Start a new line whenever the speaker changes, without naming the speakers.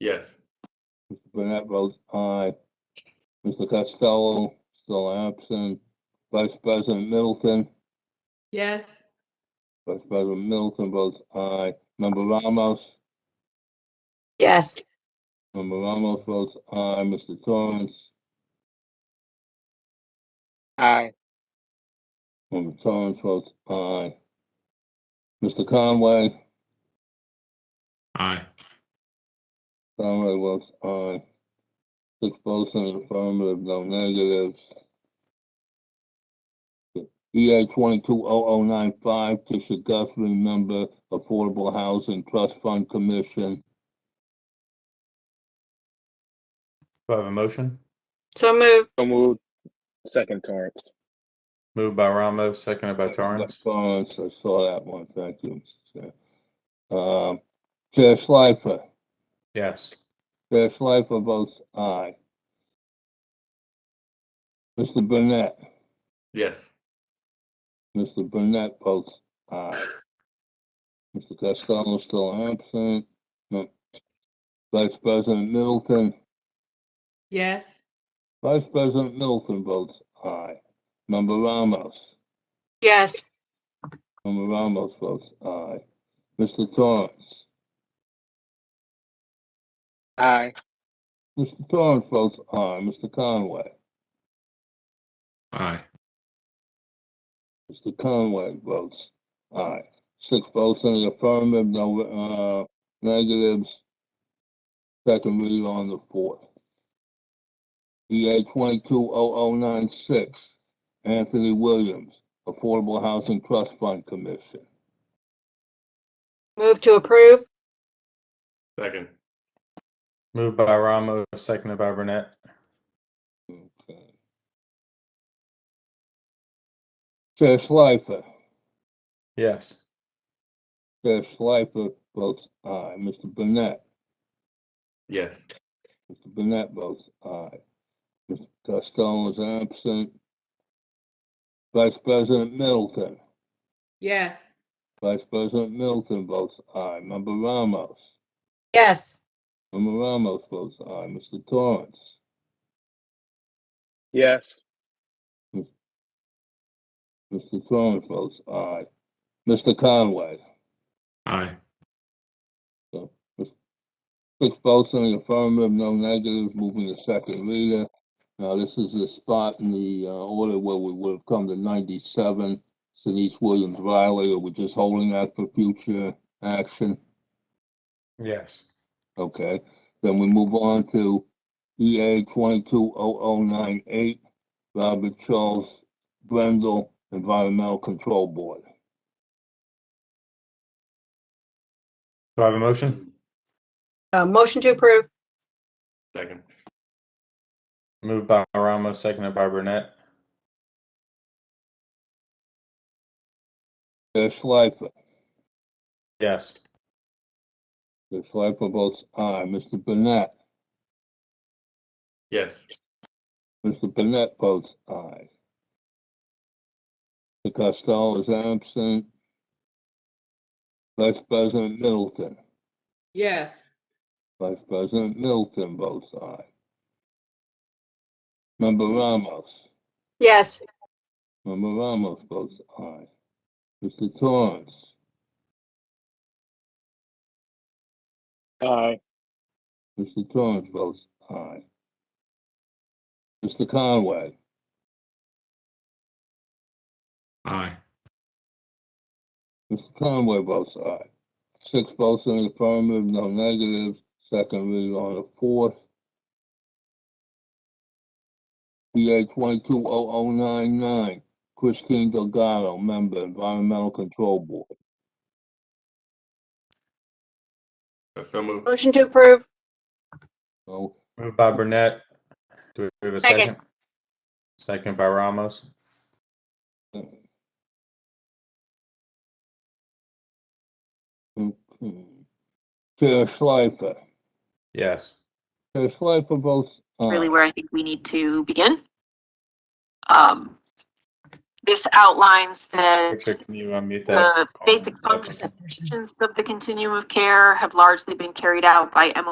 Yes.
Mr. Burnett votes aye. Mr. Costello, still absent. Vice President Middleton,
yes,
Vice President Middleton votes aye. Member Ramos,
yes,
Member Ramos votes aye. Mr. Torrance,
aye,
Member Torrance votes aye. Mr. Conway,
Aye.
Conway votes aye. Six votes in affirmative, no negatives. EA twenty-two oh oh nine five, Tisha Guthrie, member, Affordable Housing Trust Fund Commission.
Do I have a motion?
so moved,
so moved. Second Torrance,
Moved by Ramos, seconded by Uh, Torrance.
Torrance, I saw that one, thank you. Mr. Chair. Um, Chair Schleifer,
Yes.
Chair Schleifer votes aye. Mr. Burnett,
Yes.
Mr. Burnett votes aye. Mr. Costello still absent. No. Vice President Middleton,
yes,
Vice President Middleton votes aye. Member Ramos,
yes,
Member Ramos votes aye. Mr. Torrance,
aye,
Mr. Torrance votes aye. Mr. Conway.
Aye.
Mr. Conway votes aye. Six votes in the affirmative, no, uh, negatives. Second read on the fourth. EA twenty-two oh oh nine six, Anthony Williams, Affordable Housing Trust Fund Commission.
move to approve,
Second.
Moved by Ramos, seconded by Burnett.
Okay. Chair Schleifer,
Yes.
Chair Schleifer votes aye. Mr. uh, Burnett.
Yes.
Mr. Burnett uh, votes aye. Mr. Costello is absent. Vice President Middleton,
yes,
Vice President Middleton votes aye. Member Ramos,
yes,
Member Ramos votes aye. Mr. Torrance,
yes,
Mr. Torrance votes aye. Mr. Conway,
Aye.
six votes in the affirmative, no negatives, moving to second reader. Now, this is the spot in the uh, order where we would have come to ninety-seven, Denise Williams Riley, are we just holding that for future action?
Yes.
Okay, then we move on to EA twenty-two oh oh nine eight, Robert Charles Brendel, Environmental Control Board.
Do I have a motion?
uh, motion to approve,
Second.
Moved by Ramos, seconded by Burnett.
Chair Schleifer,
Yes.
Chair Schleifer votes aye. Mr. Burnett,
Yes.
Mr. Burnett votes aye. Mr. Costello is absent. Vice President Middleton,
yes,
Vice President Middleton votes aye. Member Ramos.
yes,
Member Ramos votes aye. Mr. Torrance,
aye,
Mr. Torrance votes aye. Mr. Conway,
Aye.
Mr. Conway votes aye. Six votes in the affirmative, no negatives, second read on the fourth. EA twenty-two oh oh nine nine, Christine Delgado, member, Environmental Control Board.
So moved.
motion to approve,
So,
Moved by Burnett. Do we have a
Second.
second? Second by Ramos.
okay. Chair Schleifer,
Yes.
Chair Schleifer votes aye.
really where I think we need to begin. Um, This outlines the,
Richard, can you unmute
the
that?
basic functions of the continuum of care have largely been carried out by E MO